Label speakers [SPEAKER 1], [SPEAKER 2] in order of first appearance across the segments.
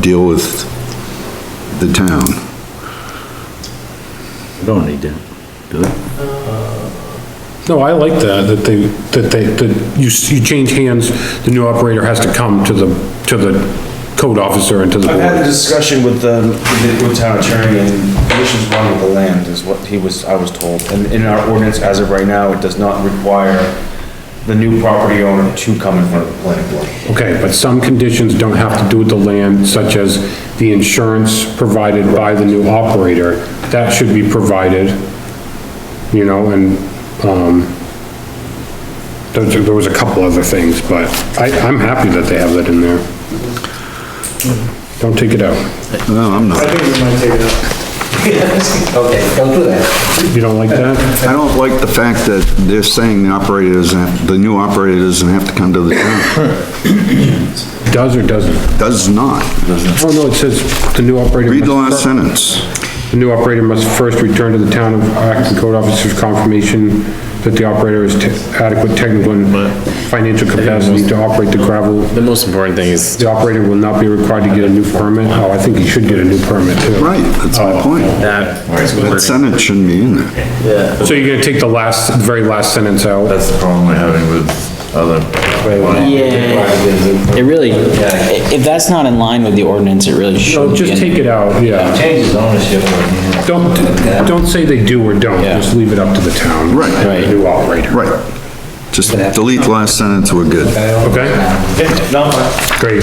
[SPEAKER 1] deal with the town.
[SPEAKER 2] We don't need that, do we?
[SPEAKER 3] No, I like that, that they, that they, that you, s- you change hands, the new operator has to come to the, to the code officer and to the
[SPEAKER 4] I've had a
[SPEAKER 3] board.
[SPEAKER 4] discussion with the, with the- with town attorney and the issues wrong with the land is what he was, I was told. And in our ordinance, as of right now, it does not require the new property owner to come in front of the planning board.
[SPEAKER 3] Okay, but some conditions don't have to do with the land, such as the insurance provided by the new operator. That should be provided, you know, and, um, there, there was a couple other things, but I, I'm happy that they have that in there. Don't take it out.
[SPEAKER 1] No, I'm not.
[SPEAKER 5] Okay, don't do that.
[SPEAKER 3] You don't like that?
[SPEAKER 1] I don't like the fact that they're saying the operator doesn't, have- the new operator doesn't have to come to the town.
[SPEAKER 3] Does or doesn't?
[SPEAKER 1] Does not.
[SPEAKER 3] Oh, no, it says the new operator.
[SPEAKER 1] Read the last
[SPEAKER 3] must-
[SPEAKER 1] sentence.
[SPEAKER 3] The new operator must first return to the town of Acton Code Officer's confirmation that the operator is te- adequate technical and financial capacity to operate the gravel.
[SPEAKER 6] The most important thing is
[SPEAKER 3] The operator will not be required to get a new permit. Oh, I think he should get a new permit too. Oh.
[SPEAKER 1] Right, that's my
[SPEAKER 5] Oh.
[SPEAKER 1] point.
[SPEAKER 6] that.
[SPEAKER 1] That sentence shouldn't be in there.
[SPEAKER 3] So you're gonna take the last, the very last sentence out?
[SPEAKER 7] That's the problem we're having with other.
[SPEAKER 5] Yeah.
[SPEAKER 6] It really, i- if that's not in line with the ordinance, it really should
[SPEAKER 3] No,
[SPEAKER 6] be.
[SPEAKER 3] just
[SPEAKER 6] in-
[SPEAKER 3] take it out, yeah.
[SPEAKER 7] Changes ownership.
[SPEAKER 3] Don't, don't say they do or don't,
[SPEAKER 6] Yeah.
[SPEAKER 3] just leave it up to the town.
[SPEAKER 1] Right.
[SPEAKER 3] The New operator,
[SPEAKER 1] Right. Just delete the last sentence, we're good.
[SPEAKER 3] okay?
[SPEAKER 4] No,
[SPEAKER 3] Great.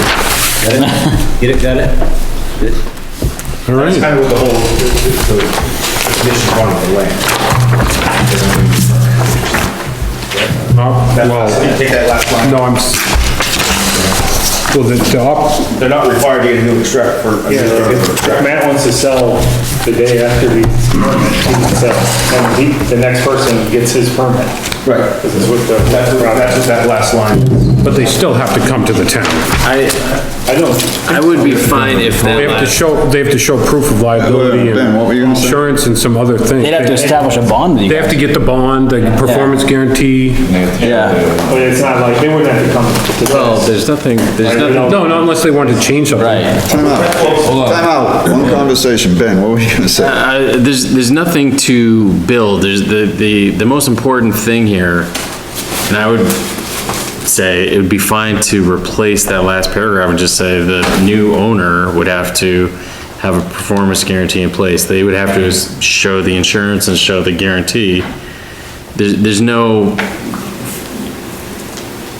[SPEAKER 5] Get it, got it?
[SPEAKER 3] All right.
[SPEAKER 4] kind of with the whole, the, the- the issues wrong with the land.
[SPEAKER 3] Uh,
[SPEAKER 4] You
[SPEAKER 3] Well,
[SPEAKER 4] Take that last line.
[SPEAKER 3] no, I'm, s- well, the, the op,
[SPEAKER 4] They're not required to get a new extract for. a new-
[SPEAKER 8] Matt wants to sell the day after the permit, he can sell, and he, the next person gets his permit.
[SPEAKER 4] Right.
[SPEAKER 8] This is what the,
[SPEAKER 4] That's what, that's what that last line is.
[SPEAKER 3] But they still have to come to the town.
[SPEAKER 6] I,
[SPEAKER 8] I don't,
[SPEAKER 6] I would be fine if
[SPEAKER 3] They
[SPEAKER 6] that,
[SPEAKER 3] have to
[SPEAKER 6] last-
[SPEAKER 3] show, they have to show proof of liability
[SPEAKER 1] Ben, what were you
[SPEAKER 3] and
[SPEAKER 1] gonna say?
[SPEAKER 3] insurance and some other thing.
[SPEAKER 6] they'd have to establish a bond with you
[SPEAKER 3] They have to get the bond, the performance guarantee.
[SPEAKER 6] Yeah.
[SPEAKER 8] but it's not like, they wouldn't have to come to.
[SPEAKER 2] Well, there's nothing, there's nothing
[SPEAKER 3] No, not unless they want to change something.
[SPEAKER 6] Right.
[SPEAKER 1] Time out. Time out. One conversation, Ben, what were you gonna say?
[SPEAKER 6] Uh, there's, there's nothing to build. There's the, the, the most important thing here, and I would say it would be fine to replace that last paragraph and just say the new owner would have to have a performance guarantee in place. They would have to s- show the insurance and show the guarantee. There's, there's no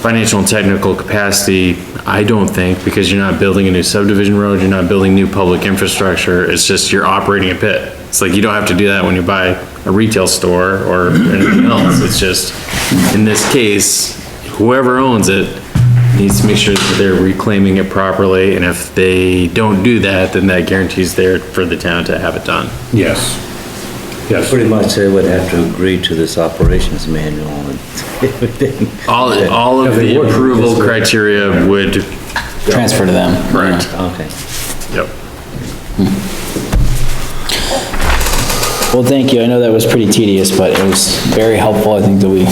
[SPEAKER 6] financial and technical capacity, I don't think, because you're not building a new subdivision road, you're not building new public infrastructure, it's just you're operating a pit. It's like, you don't have to do that when you buy a retail store or anything else, it's just, in this case, whoever owns it needs to make sure that they're reclaiming it properly, and if they don't do that, then that guarantee's there for the town to have it done.
[SPEAKER 3] Yes. Yes.
[SPEAKER 5] Pretty much they would have to agree to this operations manual and everything.
[SPEAKER 6] All, all of
[SPEAKER 3] Yeah, they
[SPEAKER 6] the
[SPEAKER 3] would.
[SPEAKER 6] approval criteria would,
[SPEAKER 5] Transfer to them.
[SPEAKER 6] Correct.
[SPEAKER 5] Okay.
[SPEAKER 6] yep.
[SPEAKER 5] Well, thank you. I know that was pretty tedious, but it was very helpful. I think that we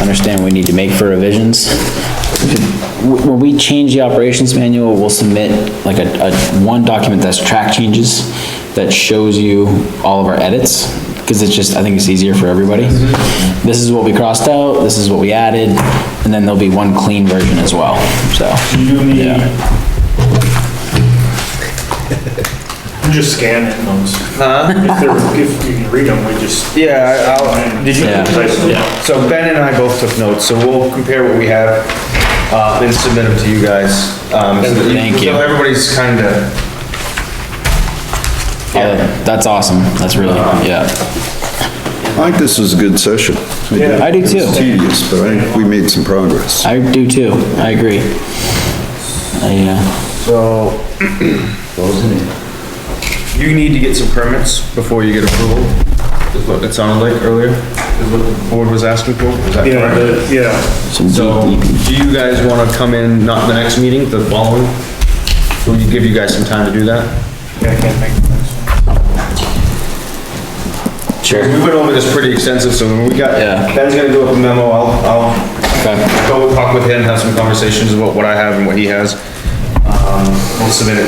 [SPEAKER 5] understand what we need to make for revisions. Wh- When we change the operations manual, we'll submit like a, a, one document that's track changes that shows you all of our edits, because it's just, I think it's easier for everybody. This is what we crossed out, this is what we added, and then there'll be one clean version as well, so.
[SPEAKER 8] You need,
[SPEAKER 5] Yeah.
[SPEAKER 8] you just scan it, those. If they're, if you can read them, we just.
[SPEAKER 4] Yeah, I- I'll, did you?
[SPEAKER 8] Yeah.
[SPEAKER 4] So Ben and I both took notes, so we'll compare what we have, uh, and submit them to you guys. um, so that
[SPEAKER 5] Thank you.
[SPEAKER 4] So everybody's kinda,
[SPEAKER 5] Yeah, Uh, that's awesome. That's really, yeah.
[SPEAKER 1] I think this was a good session.
[SPEAKER 5] I do too.
[SPEAKER 1] It was tedious, but I think we made some progress.
[SPEAKER 5] I do too, I agree. I, uh,
[SPEAKER 4] so. You need to get some permits before you get approval, is what it sounded like earlier, is what the board was asking for, is that
[SPEAKER 8] Yeah,
[SPEAKER 4] correct?
[SPEAKER 8] the- yeah.
[SPEAKER 4] So, do you guys wanna come in, not the next meeting, the following? Will you give you guys some time to do that?
[SPEAKER 8] Yeah, I can't make
[SPEAKER 4] We went over this pretty extensive, so when we got,
[SPEAKER 5] Yeah.
[SPEAKER 4] Ben's gonna do up a memo, I'll, I'll
[SPEAKER 5] okay.
[SPEAKER 4] go talk with him, have some conversations about what I have and what he has. Um, we'll submit it